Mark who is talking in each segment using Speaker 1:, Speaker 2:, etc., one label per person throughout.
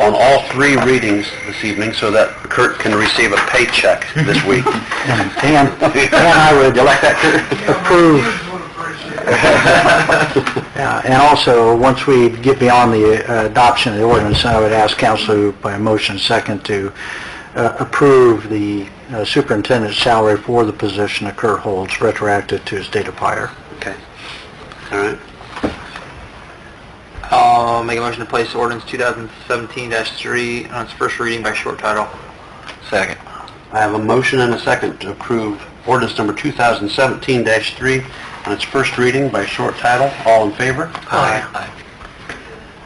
Speaker 1: on all three readings this evening so that Kurt can receive a paycheck this week. Dan, Dan, I would elect that Kurt.
Speaker 2: Uh, And also, once we get beyond the uh, adoption of the ordinance, I would ask council by motion second to uh, approve the uh, superintendent's salary for the position that Kurt holds retroactive to his date of hire.
Speaker 1: Okay. All right.
Speaker 3: I'll make a motion to place ordinance 2017-3 on its first reading by short title.
Speaker 1: Second. I have a motion and a second to approve ordinance number 2017-3 on its first reading by short title. All in favor?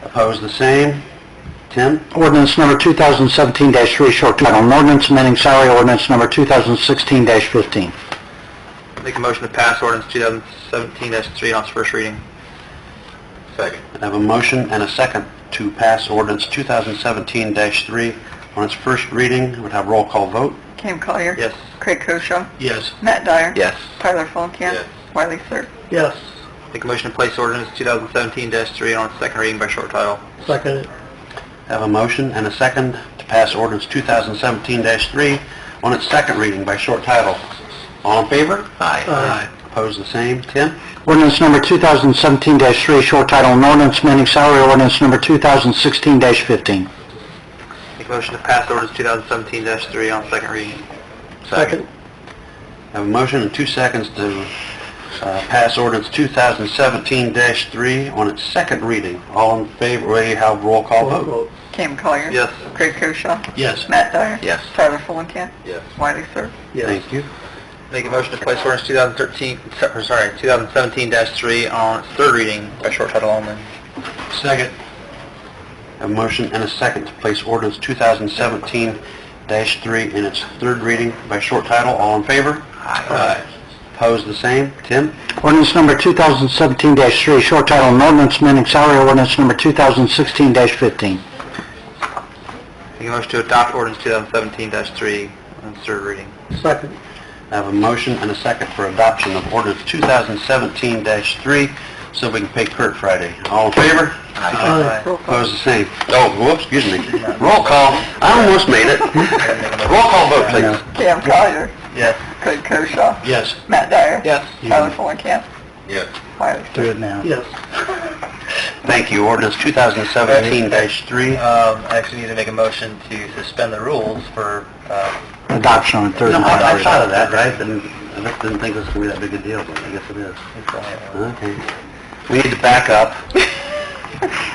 Speaker 1: Opposed, the same. Tim?
Speaker 2: Ordinance number 2017-3, short title, an ordinance amending salary ordinance number 2016-15.
Speaker 3: Make a motion to pass ordinance 2017-3 on its first reading. Second.
Speaker 1: I have a motion and a second to pass ordinance 2017-3 on its first reading. Would have roll call vote.
Speaker 4: Cam Collier.
Speaker 3: Yes.
Speaker 4: Craig Koshaw.
Speaker 3: Yes.
Speaker 4: Matt Dyer.
Speaker 1: Yes.
Speaker 4: Tyler Fulenkamp.
Speaker 3: Yes.
Speaker 4: Wiley Sir.
Speaker 3: Yes. Make a motion to place ordinance 2017-3 on its second reading by short title.
Speaker 2: Second.
Speaker 1: I have a motion and a second to pass ordinance 2017-3 on its second reading by short title. All in favor?
Speaker 2: Aye.
Speaker 1: Opposed, the same. Tim?
Speaker 2: Ordinance number 2017-3, short title, an ordinance amending salary ordinance number 2016-15.
Speaker 3: Make a motion to pass ordinance 2017-3 on second reading.
Speaker 1: Second. I have a motion and two seconds to uh, pass ordinance 2017-3 on its second reading. All in favor, will you have roll call vote?
Speaker 4: Cam Collier.
Speaker 3: Yes.
Speaker 4: Craig Koshaw.
Speaker 1: Yes.
Speaker 4: Matt Dyer.
Speaker 1: Yes.
Speaker 4: Tyler Fulenkamp.
Speaker 3: Yes.
Speaker 4: Wiley Sir.
Speaker 1: Thank you.
Speaker 3: Make a motion to place ordinance 2013, or sorry, 2017-3 on its third reading by short title only.
Speaker 1: Second. A motion and a second to place ordinance 2017-3 in its third reading by short title. All in favor? Aye. Opposed, the same. Tim?
Speaker 2: Ordinance number 2017-3, short title, an ordinance amending salary ordinance number 2016-15.
Speaker 3: Make a motion to adopt ordinance 2017-3 on its third reading.
Speaker 2: Second.
Speaker 1: I have a motion and a second for adoption of ordinance 2017-3, so we can pay Kurt Friday. All in favor?
Speaker 3: Aye.
Speaker 4: Roll call.
Speaker 1: Opposed, the same. Oh, whoops, excuse me. Roll call. I almost made it. Roll call vote, please.
Speaker 4: Cam Collier.
Speaker 3: Yes.
Speaker 4: Craig Koshaw.
Speaker 1: Yes.
Speaker 4: Matt Dyer.
Speaker 3: Yes.
Speaker 4: Tyler Fulenkamp.
Speaker 1: Yes.
Speaker 4: Wiley Sir.
Speaker 2: Do it now.
Speaker 3: Yes.
Speaker 1: Thank you. Ordinance 2017-3.
Speaker 3: Um, I actually need to make a motion to suspend the rules for, uh,
Speaker 2: Adoption on third
Speaker 1: No, I,
Speaker 2: and final
Speaker 1: I thought of
Speaker 2: reading.
Speaker 1: that, right? And I just didn't think it was gonna be that big a deal, but I guess it is. Okay. We need to back up.
Speaker 2: It's
Speaker 1: I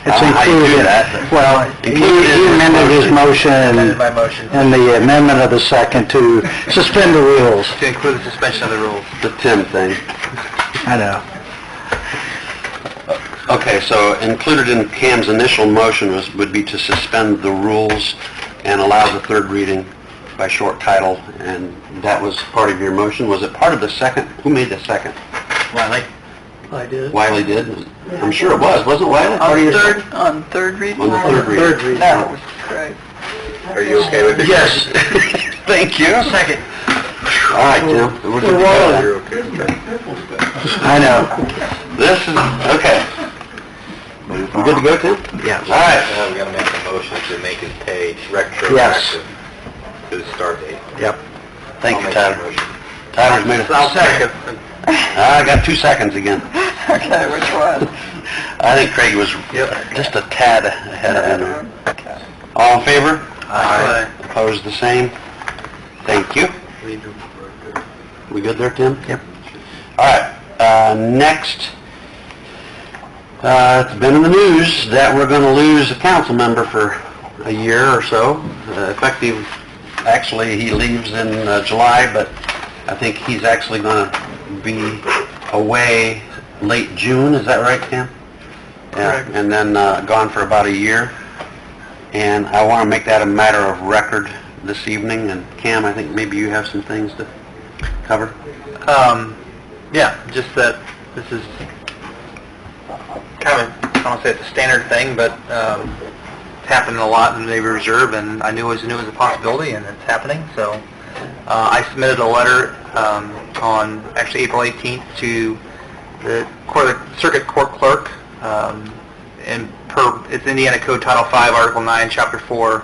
Speaker 1: don't know how you do
Speaker 2: included.
Speaker 1: that.
Speaker 2: Well, he he amended his motion and
Speaker 3: motion.
Speaker 2: and the amendment of the second to suspend the rules.
Speaker 3: To include the suspension of the rules.
Speaker 1: The Tim thing.
Speaker 2: I know.
Speaker 1: Okay, so included in Cam's initial motion was, would be to suspend the rules and allow the third reading by short title, and that was part of your motion. Was it part of the second? Who made the second?
Speaker 3: Wiley?
Speaker 2: I did.
Speaker 1: Wiley did? I'm sure it was, wasn't Wiley? part of
Speaker 4: On
Speaker 1: your-
Speaker 4: third, on third reading?
Speaker 1: On the third reading. Third reading.
Speaker 4: That was great.
Speaker 1: Are you okay with it? Yes. Thank you. Second. All right, Tim. We're good. You're okay.
Speaker 2: I know.
Speaker 1: This is, okay. You good to go, Tim?
Speaker 2: Yeah.
Speaker 1: All right. Uh,
Speaker 3: Uh, we gotta make a motion to make it pay retroactive
Speaker 2: Yes.
Speaker 3: to the start date.
Speaker 1: Yep. Thank you, Tyler. Tyler's made a... Ah, I got two seconds again.
Speaker 4: Okay, which was?
Speaker 1: I think Craig was just a tad ahead of him.
Speaker 4: Okay.
Speaker 1: All in favor?
Speaker 3: Aye.
Speaker 1: Opposed, the same? Thank you. We good there, Tim? Yep. All right, uh, next, uh, it's been in the news that we're gonna lose a council member for a year or so, uh, effective, actually, he leaves in uh, July, but I think he's actually gonna be away late June, is that right, Tim? Yeah,
Speaker 3: Correct.
Speaker 1: and then, uh, gone for about a year. And I want to make that a matter of record this evening, and Cam, I think maybe you have some things to cover?
Speaker 3: Um, yeah, just that this is kind of, I don't want to say it's a standard thing, but um, it's happening a lot in the Navy Reserve, and I knew it was, knew it was a possibility, and it's happening, so uh, I submitted a letter um, on, actually April 18th, to the court- circuit court clerk um, and per, it's Indiana Code Title 5, Article 9, Chapter 4,